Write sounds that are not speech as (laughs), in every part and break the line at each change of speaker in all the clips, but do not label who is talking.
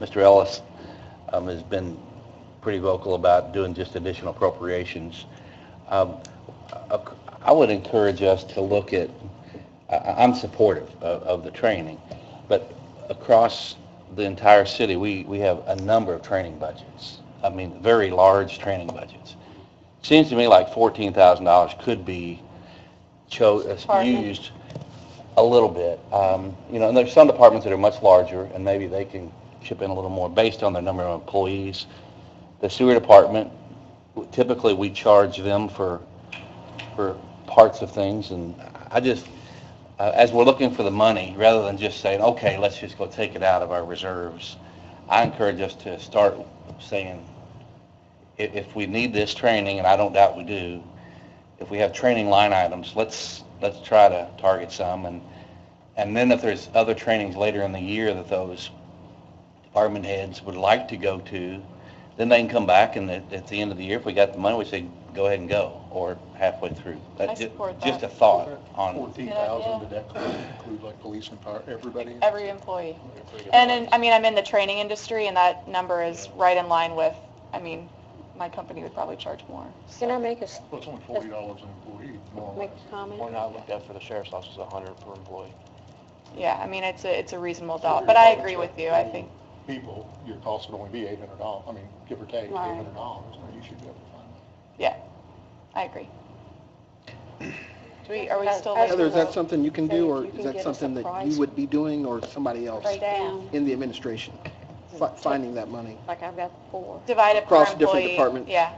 Mr. Ellis um, has been pretty vocal about doing just additional appropriations. Um, I I would encourage us to look at, I- I- I'm supportive of of the training, but across the entire city, we we have a number of training budgets. I mean, very large training budgets. Seems to me like $14,000 could be chose,
Department.
used a little bit. Um, You know, and there's some departments that are much larger, and maybe they can chip in a little more based on their number of employees. The sewer department, typically, we charge them for, for parts of things, and I just, uh, as we're looking for the money, rather than just saying, okay, let's just go take it out of our reserves, I encourage us to start saying, if, if we need this training, and I don't doubt we do, if we have training line items, let's, let's try to target some, and, and then if there's other trainings later in the year that those department heads would like to go to, then they can come back, and at, at the end of the year, if we got the money, we say, go ahead and go, or halfway through. That's
I
ju-
support
Just a
that.
thought on,
Fourteen thousand, did that include like police and fire, everybody?
Every employee. And in, I mean, I'm in the training industry and that number is right in line with, I mean, my company would probably charge more.
Can I make a, s-
Well, it's only forty dollars an employee, more or
make
less.
a comment?
I looked at for the sheriff's office is 100 per employee.
Yeah, I mean, it's a, it's a reasonable dollar, but I agree with you, I think.
People, your cost would only be eight hundred dollars, I mean, give or take, eight
Right.
hundred dollars, you should be able to find that.
Yeah, I agree. Do we, are we still?
As- as-
Heather, is that
that's
something you can
Say
do,
if
or
you can
is that
get us a
something that
price.
you would be doing, or somebody else
Breakdown,
in the administration, fi- finding that money?
like I've got four.
Divide it per employee.
across different departments?
Yeah,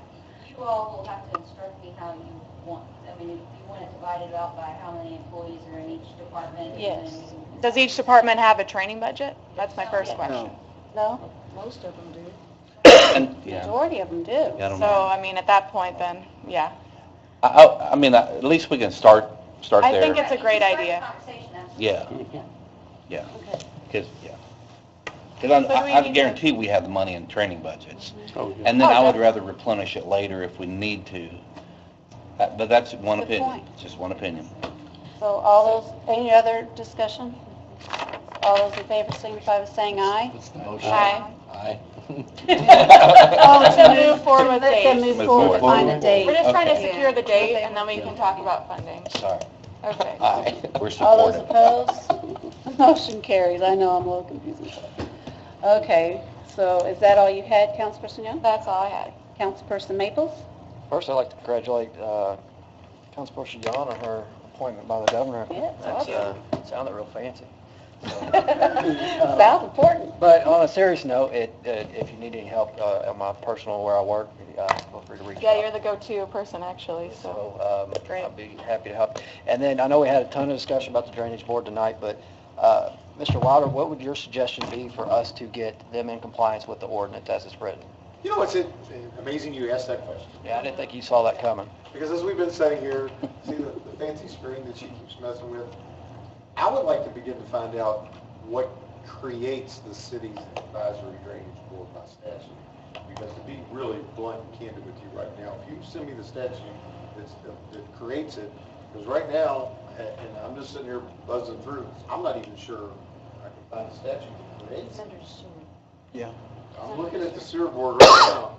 You all will have to instruct me how you want, I mean, if you want to divide it out by how many employees are in each department. and
Yes.
then-
does each department have a training budget? That's my first question.
No.
No, most of them do.
and, yeah,
Majority of them do.
I don't know.
So, I mean, at that point then, yeah,
I, I, I mean, I- at least we can start, start
I
there.
think it's a great
Start the
idea.
conversation, that's-
Yeah, yeah,
Okay.
because, yeah. Because
So do we
I, I
need to-
guarantee we have the money in training budgets.
Oh,
And then
Oh,
I would rather replenish it later if we need to. Uh, But that's one
Good
opinion,
point.
just one opinion.
So all those, any other discussion? All those in favor signify by saying aye.
Uh,
Aye. (laughs)
Oh,
(laughs)
to move forward with
Let them move
dates.
forward to find a
we're
date.
just trying to
Okay.
secure the date and then we can talk about funding.
Sorry.
Okay.
Aye, we're
All those
supportive.
opposed? (laughs) Motion carries. I know I'm a little confused. Okay, so is that all you had, Councilperson Young?
That's all I had. (laughs)
Councilperson Maples? (laughs)
First, I'd like to congratulate uh, Councilperson Yon on her appointment by the governor.
Yeah, it's
That's, uh, Sounded real fancy.
Sounds important.
But on a serious note, it, it- if you need any help uh, on my personal where I work, uh, feel free to reach out.
Yeah, you're the go-to person actually, so.
So um,
Great.
I'll be happy to help. And then I know we had a ton of discussion about the drainage board tonight, but uh, Mr. Wilder, what would your suggestion be for us to get them in compliance with the ordinance as it's written?
You know, it's it- amazing you asked that question,
Yeah, I didn't think you saw that coming.
because as we've been sitting here, see the the fancy screen that she keeps messing with? I would like to begin to find out what creates the city's advisory drainage board by statute. Because to be really blunt and candid with you right now, if you send me the statute that's, that- that creates it, because right now, a- and I'm just sitting here buzzing through, I'm not even sure I can find a statute that creates it. I'm looking at the sewer board right now.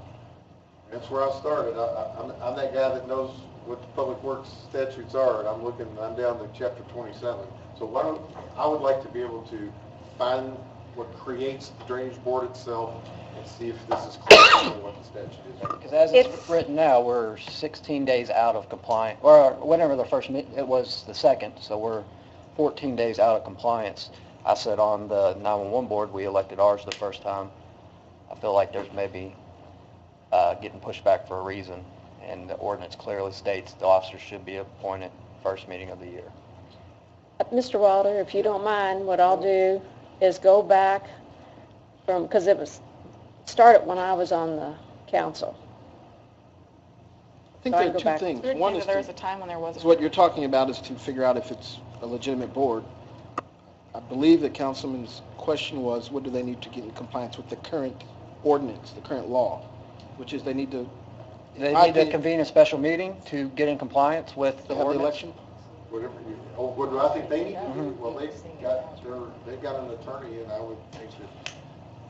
That's where I started. I- I- I'm, I'm that guy that knows what the public works statutes are, and I'm looking, I'm down to chapter 27. So why don't, I would like to be able to find what creates the drainage board itself and see if this is clear to what the statute is.
Because as it's
It's-
written now, we're 16 days out of compliance, or whenever the first, meet- it was the second, so we're 14 days out of compliance. I said on the 911 board, we elected ours the first time. I feel like there's maybe uh, getting pushed back for a reason, and the ordinance clearly states the officer should be appointed first meeting of the year.
Uh, Mr. Wilder, if you don't mind, what I'll do is go back from, because it was, started when I was on the council.
I think
So I
there
go
are two
back.
things.
Weird
One
thing
is
that there was a
to-
time when there
is
wasn't.
what you're talking about is to figure out if it's a legitimate board. I believe the councilman's question was, what do they need to get in compliance with the current ordinance, the current law? Which is they need to
They
I
need to
think-
convene a special meeting to get in compliance with
to
the
have the
ordinance.
election?
Whatever you, oh, what do I think they need to do? Well, they've got, their- they've got an attorney, and I would think that